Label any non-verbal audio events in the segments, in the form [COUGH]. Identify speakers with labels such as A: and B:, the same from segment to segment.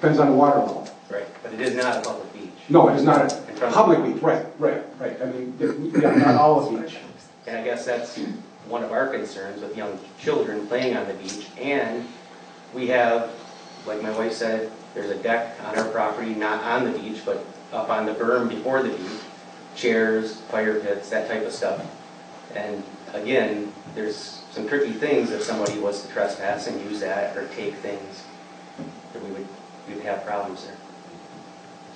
A: Depends on the water level.
B: Right, but it is not a public beach.
A: No, it is not a
B: In front of-
A: public beach, right, right, right. I mean, yeah, not all of beach.
B: And I guess that's one of our concerns with young children playing on the beach. And we have, like my wife said, there's a deck on our property, not on the beach, but up on the berm before the beach, chairs, fire pits, that type of stuff. And again, there's some tricky things if somebody was to trespass and use that or take things, that we would, we'd have problems there.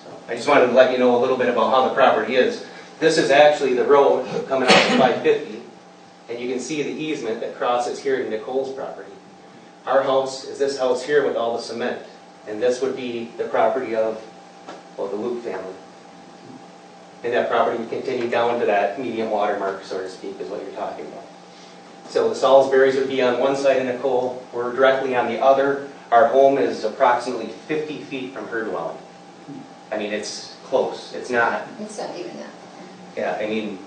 B: So I just wanted to let you know a little bit about how the property is. This is actually the road coming out of 550, and you can see the easement that crosses here to Nicole's property. Our house is this house here with all the cement, and this would be the property of, well, the Luke family. And that property would continue down to that medium water mark, so to speak, is what you're talking about. So the Salisbury's would be on one side of Nicole, we're directly on the other. Our home is approximately 50 feet from her dwelling. I mean, it's close, it's not
C: It's not even that.
B: yeah, I mean,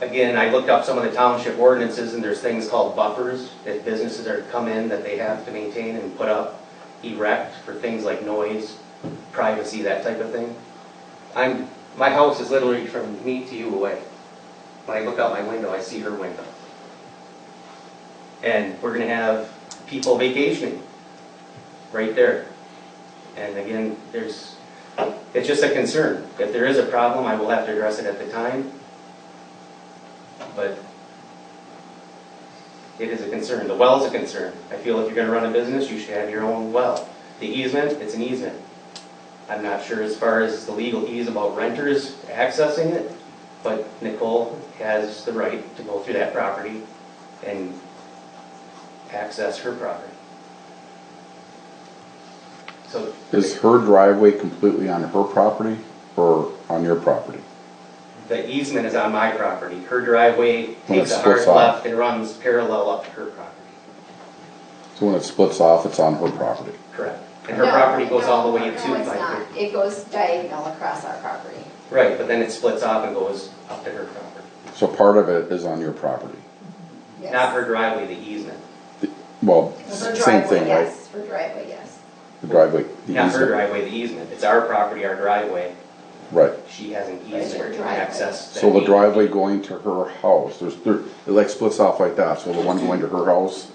B: again, I looked up some of the township ordinances and there's things called buffers that businesses are come in that they have to maintain and put up, erect for things like noise, privacy, that type of thing. I'm, my house is literally from me to you away. When I look out my window, I see her window. And we're gonna have people vacationing right there. And again, there's, it's just a concern. If there is a problem, I will have to address it at the time. But it is a concern. The well's a concern. I feel if you're gonna run a business, you should have your own well. The easement, it's an easement. I'm not sure as far as the legal ease about renters accessing it, but Nicole has the right to go through that property and access her property. So.
D: Is her driveway completely on her property or on your property?
B: The easement is on my property. Her driveway
D: Well, it
B: takes a hard
D: splits off.
B: left and runs parallel up to her property.
D: So when it splits off, it's on her property.
B: Correct. And her
C: No,
B: property goes all the way
C: no,
B: to
C: No, it's not.
B: 550.
C: It goes diagonal across our property.
B: Right, but then it splits off and goes up to her property.
D: So part of it is on your property.
C: Yes.
B: Not her driveway, the easement.
D: Well,
C: For
D: same
C: driveway,
D: thing, right?
C: yes, For driveway, yes.
D: The driveway, the
B: Not her
D: easement,
B: driveway, the easement. It's our property, our driveway.
D: right.
B: She has an
C: it's her
B: easement to
C: driveway.
B: access. that
D: So the
B: we-
D: driveway going to her house, there's, there, it like splits off like that, so the one going to her house,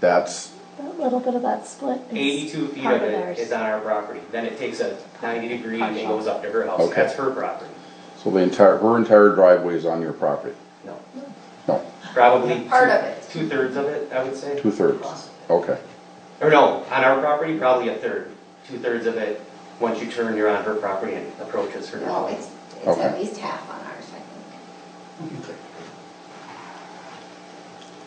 D: that's,
E: That little bit of that split is.
B: 82 feet
E: part
B: of it
E: ours.
B: is on our property. Then it takes a 90 degree and it
E: Partial.
B: goes up to her house.
D: Okay.
B: That's her property.
D: so the entire, her entire driveway is on your property?
B: No,
D: No,
B: probably.
C: Part of it.
B: Two thirds of it, I would say.
D: two thirds, okay.
B: Or no, on our property, probably a third, two-thirds of it, once you turn, you're on her property and approaches her.
C: No, Oh, it's, it's
D: Okay.
C: at least half on ours, I think.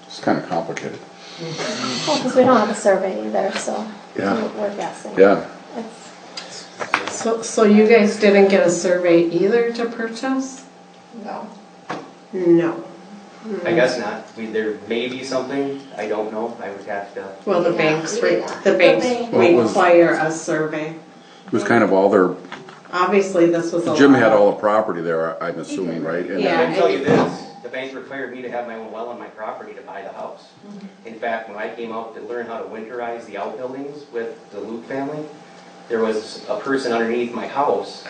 D: It's kinda complicated.
E: Well, because we don't have a survey either, so.
D: Yeah.
E: We're guessing.
D: Yeah,
E: It's-
F: So, so you guys didn't get a survey either to purchase?
C: No.
F: No.
B: I guess not, we, there may be something, I don't know, I would have to,
F: Well, the
C: Yeah,
F: banks,
C: we
F: re-
C: did not.
F: the banks
E: bank-
D: What was-
F: require a survey.
D: it was kind of all their,
F: Obviously, this was a.
D: Jim had
F: lot.
D: all the property there, I- I'm assuming, right? And
B: I
F: Yeah,
B: can tell you
F: I-
B: this, the bank required me to have my own well on my property to buy the house. In fact, when I came out to learn how to winterize the outbuildings with the Luke family, there was a person underneath my house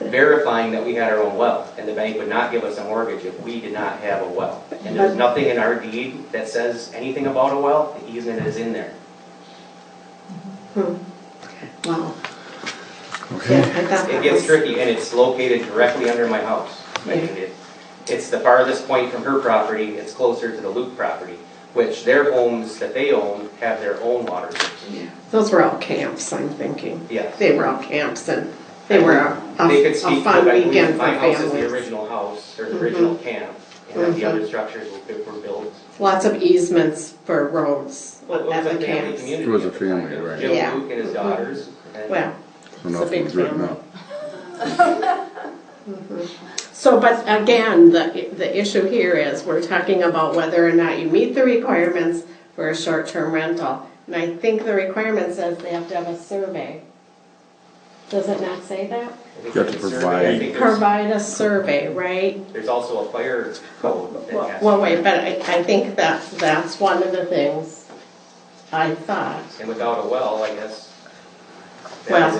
B: verifying that we had our own well, and the bank would not give us a mortgage if we did not have a well. And there's nothing in our deed that says anything about a well, the easement is in there.
F: Wow. Yeah,
D: Okay,
F: I thought
B: It
F: that
B: gets
F: was-
B: tricky, and it's located directly under my house. I mean, it- It's the farthest point from her property, it's closer to the Luke property, which their homes that they own have their own water sources.
F: Those were all camps, I'm thinking.
B: Yes.
F: They were all camps and they were a, a
B: They could
F: a
B: speak, but
F: fun
B: I believe
F: weekend for
B: my house is the
F: families. Mm-hmm.
B: original house, or the original camp, and then the
F: Mhm.
B: other structures were built- were built.
F: Lots of easements for roads
B: Well, it
F: at
B: was a
F: the
B: family
F: camps.
B: community.
D: It was a
B: at the time.
D: family, right.
F: Yeah. Mm-hmm.
B: Jim Luke and his daughters, and
F: Well,
D: so
F: It's a big
D: nothing's written
F: family.
D: up.
F: [LAUGHS] So, but again, the, the issue here is, we're talking about whether or not you meet the requirements for a short-term rental. And I think the requirement says they have to have a survey. Does it not say that?
B: I think
D: You have
B: there's
D: to
B: a survey. I
D: provide-
B: think there's,
F: Provide a survey, right?
B: there's also a fire code that
F: Well,
B: has.
F: well, wait, but I, I think that, that's one of the things I thought.
B: And without a well, I guess, That is
F: Well,